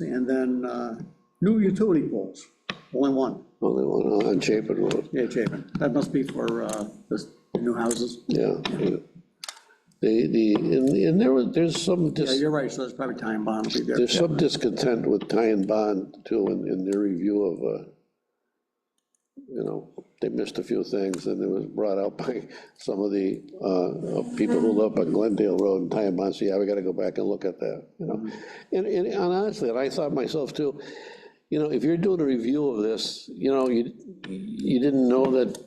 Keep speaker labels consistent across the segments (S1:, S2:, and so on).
S1: and then uh, new utility poles, only one,
S2: Only one uh, on Chapin Road,
S1: yeah, Chapin. That must be for uh, the new houses.
S2: yeah. yeah. The, the, and and there was, there's some,
S1: Yeah,
S2: dis-
S1: you're right, so that's probably time bond will be there.
S2: there's some discontent with Ty and Bond too, in, in their review of, uh, you know, they missed a few things, and it was brought out by some of the, uh, of people who live on Glendale Road and Ty and Bond, so yeah, we gotta go back and look at that, you know? And, and and honestly, and I thought myself too, you know, if you're doing a review of this, you know, you, you didn't know that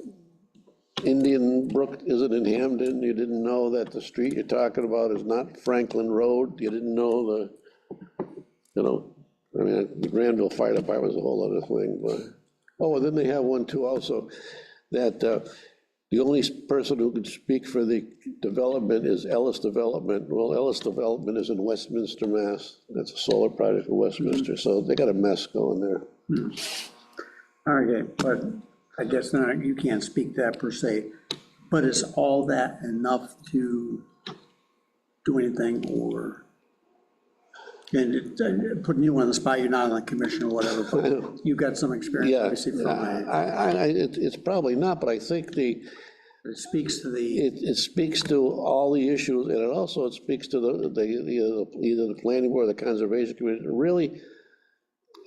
S2: Indian Brook isn't in Hamden, you didn't know that the street you're talking about is not Franklin Road, you didn't know the, you know, I mean, the Granville Fire Department's a whole other thing, but, oh, and then they have one too also, that uh, the only person who can speak for the development is Ellis Development. Well, Ellis Development is in Westminster, Mass. That's a solar project in Westminster, so they got a mess going there.
S1: Okay, but I guess not, you can't speak that per se, but is all that enough to do anything or? And it- and putting you on the spot, you're not on the commission or whatever, but you've got some experience,
S2: Yeah,
S1: obviously, from,
S2: I,
S1: uh,
S2: I, I- it- it's probably not, but I think the,
S1: it speaks to the,
S2: it, it speaks to all the issues, and it also it speaks to the, the, the- either the planning board or the conservation commission, It really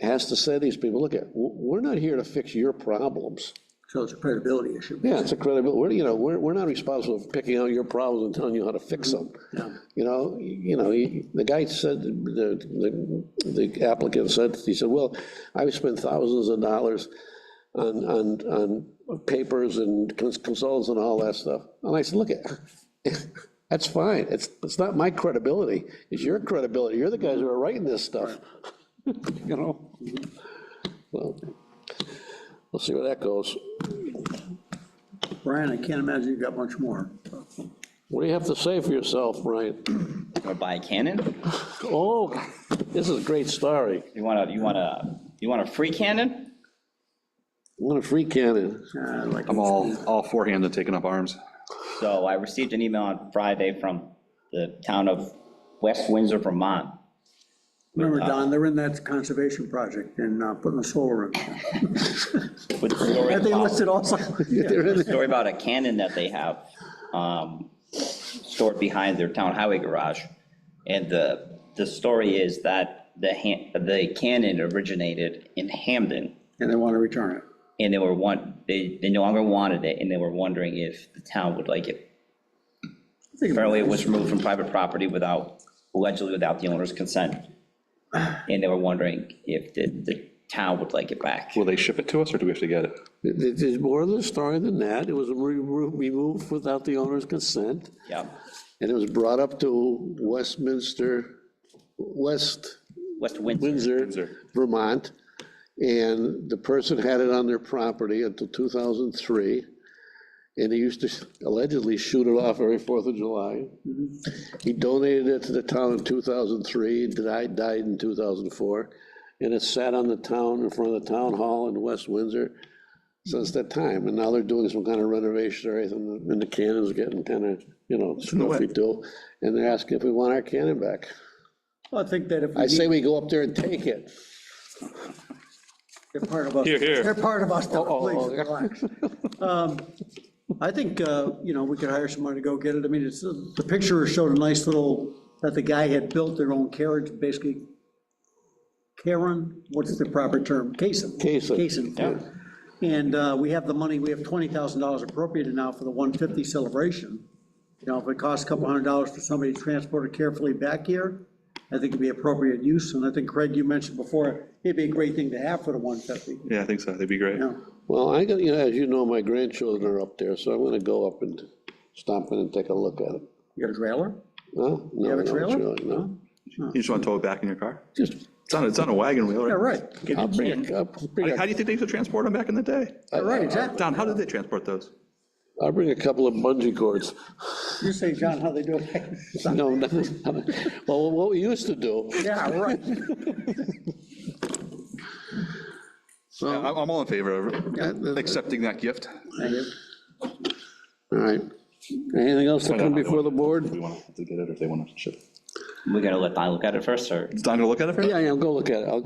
S2: has to say to these people, look at, w- we're not here to fix your problems.
S1: so it's a credibility issue.
S2: Yeah, it's a credibility, we're, you know, we're, we're not responsible for picking out your problems and telling you how to fix them.
S1: Yeah.
S2: You know, you you know, you- the guy said, the, the- the applicant said, he said, well, I've spent thousands of dollars on, on, on papers and cons- consultants and all that stuff. And I said, look, that's fine, it's, it's not my credibility, it's your credibility, you're the guys who are writing this stuff. You know? Well, we'll see where that goes.
S1: Brian, I can't imagine you've got much more.
S2: What do you have to say for yourself, Brian?
S3: Or buy a cannon?
S2: Oh, this is a great story.
S3: You want a, you want a, you want a free cannon?
S2: What a free cannon.
S1: Uh, like-
S4: I'm all, all forehand and taking up arms.
S3: So I received an email on Friday from the town of West Windsor, Vermont.
S1: Remember, Don, they're in that conservation project and uh, putting the solar in.
S3: with the story
S1: Have they
S3: about-
S1: listed also?
S3: Story about a cannon that they have um, stored behind their town highway garage. And the, the story is that the, han- the cannon originated in Hamden.
S1: And they want to return it.
S3: And they were one, they, they no longer wanted it, and they were wondering if the town would like it.
S1: I think-
S3: Apparently, it was removed from private property without, allegedly without the owner's consent. And they were wondering if the, the town would like it back.
S4: Will they ship it to us or do we have to get it?
S2: There- There's more to the story than that. It was re- re- removed without the owner's consent,
S3: Yeah,
S2: and it was brought up to Westminster, West
S3: West Windsor,
S2: Windsor,
S4: Windsor.
S2: Vermont. And the person had it on their property until 2003. And he used to allegedly shoot it off every Fourth of July. He donated it to the town in 2003, died, died in 2004. And it sat on the town, in front of the town hall in West Windsor since that time. And now they're doing some kind of renovation or anything, and the cannon's getting kind of, you know, stuffy too. And they're asking if we want our cannon back.
S1: Well, I think that if we
S2: I say
S1: need,
S2: we go up there and take it.
S1: they're part of us.
S4: Here, here.
S1: They're part of us, now,
S2: oh, oh.
S1: please, relax. Um, I think, uh, you know, we could hire someone to go get it. I mean, it's, the picture showed a nice little, that the guy had built their own carriage, basically. Karen, what's the proper term? Cason.
S2: Caisson.
S1: Cason, yeah. And uh, we have the money, we have $20,000 appropriated now for the 150 celebration. You know, if it costs a couple hundred dollars for somebody to transport it carefully back here, I think it'd be appropriate use, and I think, Craig, you mentioned before, it'd be a great thing to have for the 150,
S4: Yeah, I think so. That'd be great.
S1: you know?
S2: Well, I got, you know, as you know, my grandchildren are up there, so I'm gonna go up and stomp in and take a look at it.
S1: You got a trailer?
S2: Huh? No,
S1: have a
S2: no,
S1: trailer?
S2: No,
S4: You just want to tow it back in your car?
S2: just,
S4: It's on, it's on a wagon wheel, right?
S1: Yeah, right,
S2: I'll bring, a- I'll bring,
S4: How do
S2: a-
S4: you think they used to transport them back in the day?
S1: Yeah, right, exactly.
S4: Don, how did they transport those?
S2: I'll bring a couple of bungee cords.
S1: You say, John, how they do it?
S2: No, no, no. well, what we used to do,
S1: Yeah, right.
S4: Yeah, Uh, I'm I'm all in favor of accepting that gift.
S2: all right. Anything else to come before the board?
S4: want to get it or if they want to ship it.
S5: We're gonna let Don look at it first, or?
S3: Don, you look at it for us?
S2: Yeah, yeah, I'll go look at it, I'll